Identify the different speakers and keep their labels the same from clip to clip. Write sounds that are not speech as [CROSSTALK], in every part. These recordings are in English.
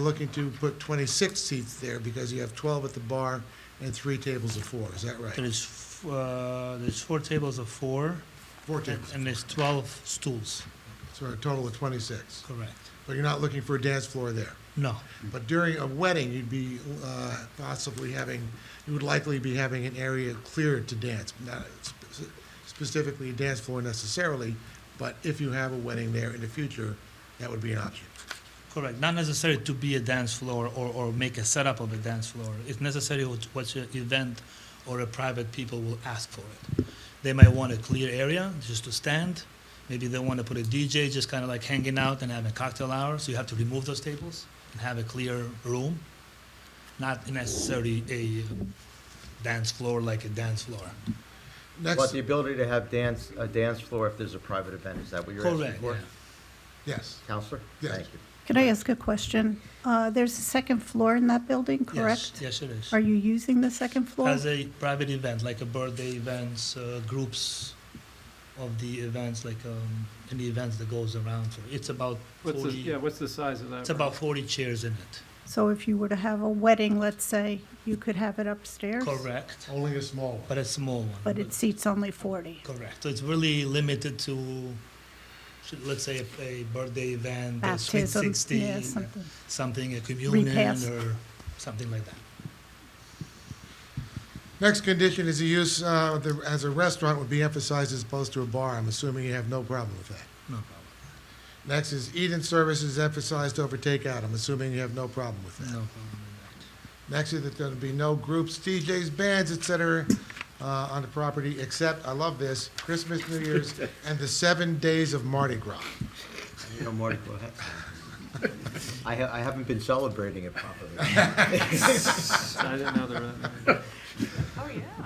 Speaker 1: Looking to put 26 seats there because you have 12 at the bar and three tables of four, is that right?
Speaker 2: There's, f- uh, there's four tables of four,
Speaker 1: Four
Speaker 2: and
Speaker 1: tables,
Speaker 2: and there's 12 stools,
Speaker 1: so a total of 26.
Speaker 2: correct?
Speaker 1: But you're not looking for a dance floor there.
Speaker 2: No,
Speaker 1: But during a wedding, you'd be uh, possibly having, you would likely be having an area cleared to dance, not spe- specifically a dance floor necessarily, but if you have a wedding there in the future, that would be an option.
Speaker 2: correct, not necessary to be a dance floor or, or make a setup of a dance floor. It's necessary what, what your event or a private people will ask for it. They might want a clear area just to stand, maybe they want to put a DJ just kind of like hanging out and having cocktail hour, so you have to remove those tables and have a clear room, not necessarily a dance floor like a dance floor.
Speaker 1: Next,
Speaker 3: But the ability to have dance, a dance floor if there's a private event, is that what you're asking
Speaker 2: Correct,
Speaker 3: for?
Speaker 2: yeah.
Speaker 1: yes,
Speaker 3: Counselor?
Speaker 1: Yes.
Speaker 3: Thank you.
Speaker 4: Can I ask a question? Uh, There's a second floor in that building,
Speaker 2: Yes,
Speaker 4: correct?
Speaker 2: Yes, it is.
Speaker 4: Are you using the second floor?
Speaker 2: As a private event, like a birthday events, uh, groups of the events, like um, any events that goes around. For it's about
Speaker 5: What's the,
Speaker 2: forty.
Speaker 5: yeah, what's the size of that?
Speaker 2: it's about forty chairs in it.
Speaker 4: So if you were to have a wedding, let's say, you could have it upstairs?
Speaker 2: Correct,
Speaker 1: only a small one.
Speaker 2: but a small one.
Speaker 4: But it seats only 40?
Speaker 2: correct. So it's really limited to, should- let's say, a, a birthday event, a sweet
Speaker 4: Baptism,
Speaker 2: sixteen,
Speaker 4: yeah, something.
Speaker 2: something a communion
Speaker 4: Repast.
Speaker 2: or something like that.
Speaker 1: Next condition is the use uh, the- as a restaurant would be emphasized as opposed to a bar. I'm assuming you have no problem with that.
Speaker 2: No problem.
Speaker 1: Next is eat-in services emphasized over takeout. I'm assuming you have no problem with
Speaker 2: No
Speaker 1: that.
Speaker 2: problem with
Speaker 1: Next is that there'll be no groups, DJs, bands, et cetera, uh, on the property, except, I love this, Christmas, New Year's, and the seven days of Mardi Gras.
Speaker 3: You know, Marty, go ahead. [LAUGHS] I ha- I haven't been celebrating it properly.
Speaker 5: I didn't know there were that many.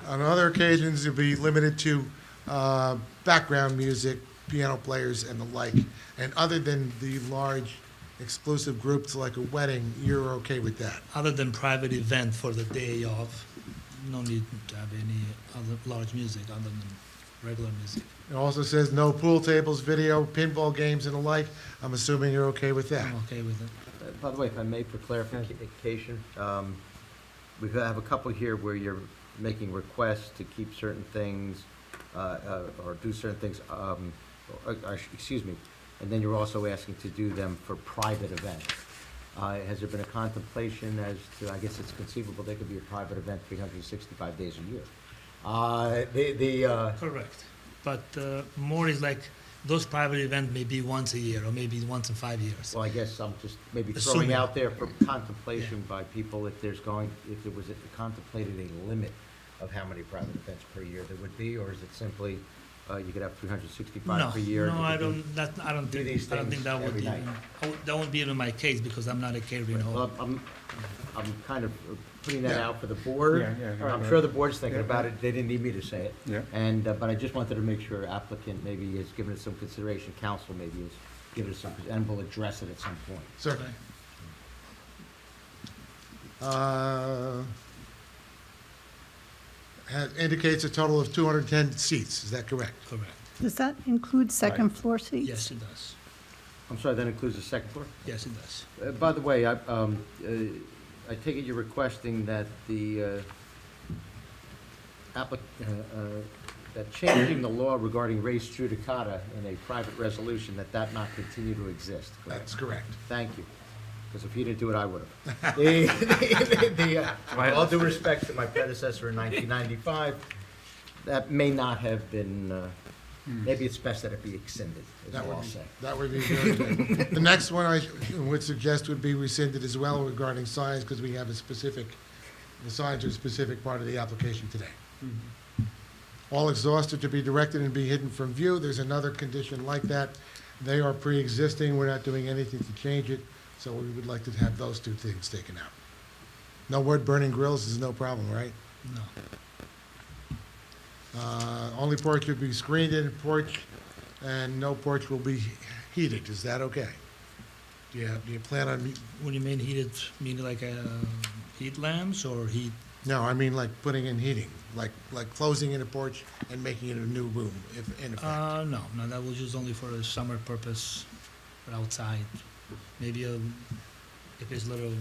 Speaker 1: On other occasions, it'll be limited to uh, background music, piano players, and the like. And other than the large exclusive groups like a wedding, you're okay with that?
Speaker 2: that. Other than private event for the day of, no need to have any other large music other than regular music.
Speaker 1: It also says no pool tables, video, pinball games, and the like. I'm assuming you're okay with that.
Speaker 2: I'm okay with it.
Speaker 3: Uh, By the way, if I may, for clarification, um, we have a couple here where you're making requests to keep certain things, uh, uh, or do certain things, um, or- or- excuse me, and then you're also asking to do them for private events. Uh, Has there been a contemplation as to, I guess it's conceivable, there could be a private event 365 days a year? Uh, The, the, uh,
Speaker 2: Correct. But uh, more is like, those private event may be once a year or maybe once in five years.
Speaker 3: well, I guess I'm just maybe
Speaker 2: Assuming.
Speaker 3: throwing out there for contemplation by people if there's going, if there was a- contemplated a limit of how many private events per year there would be, or is it simply, uh, you could have 365
Speaker 2: No,
Speaker 3: per year? and
Speaker 2: no,
Speaker 3: you
Speaker 2: I
Speaker 3: could do-
Speaker 2: don't, that, I don't
Speaker 3: do
Speaker 2: think,
Speaker 3: these
Speaker 2: I don't think
Speaker 3: things
Speaker 2: that would
Speaker 3: every
Speaker 2: even,
Speaker 3: night.
Speaker 2: I would- that wouldn't be in my case because I'm not a catering
Speaker 3: Well,
Speaker 2: hall.
Speaker 3: I'm, I'm kind of putting that
Speaker 1: Yeah.
Speaker 3: out for the board.
Speaker 6: Yeah, yeah,
Speaker 3: I'm
Speaker 6: yeah.
Speaker 3: sure the board's thinking
Speaker 6: Yeah.
Speaker 3: about it, they didn't need me to say it.
Speaker 6: Yeah.
Speaker 3: And, uh, but I just wanted to make sure applicant maybe has given it some consideration, council maybe has given it some, and will address it at some point.
Speaker 1: Sir?
Speaker 2: Okay.
Speaker 1: Uh, ha- Indicates a total of 210 seats, is that correct?
Speaker 2: Correct.
Speaker 4: Does that include second floor seats?
Speaker 2: Yes, it does.
Speaker 3: I'm sorry, that includes the second floor?
Speaker 2: Yes, it does.
Speaker 3: Uh, By the way, I, um, uh, I take it you're requesting that the, uh, applic, uh, uh, that changing the law regarding race judicata in a private resolution, that that not continue to exist, correct?
Speaker 1: That's correct.
Speaker 3: Thank you, because if you didn't do it, I
Speaker 1: [LAUGHS]
Speaker 3: would have. The- the- the, uh, with All due respect to my predecessor in 1995, that may not have been, uh, maybe it's best that it be extended, is
Speaker 1: Hmm. That
Speaker 3: all
Speaker 1: would
Speaker 3: I'll
Speaker 1: be,
Speaker 3: say.
Speaker 1: that would be very good.
Speaker 3: [LAUGHS]
Speaker 1: The next one I would suggest would be rescinded as well regarding signs, because we have a specific, the signs are a specific part of the application today.
Speaker 3: Mm-hmm.
Speaker 1: All exhausted to be directed and be hidden from view, there's another condition like that. They are pre-existing, we're not doing anything to change it, so we would like to have those two things taken out. No word burning grills is no problem, right?
Speaker 2: No.
Speaker 1: Uh, Only porch would be screened in porch, and no porch will be heated. Is that okay? Do you, do you plan on, me-
Speaker 2: What do you mean heated, meaning like uh, heat lamps or heat?
Speaker 1: no, I mean like putting in heating, like, like closing in a porch and making it a new room, if, in effect.
Speaker 2: Uh, no, no, that was used only for a summer purpose, for outside. Maybe a, a if it's literally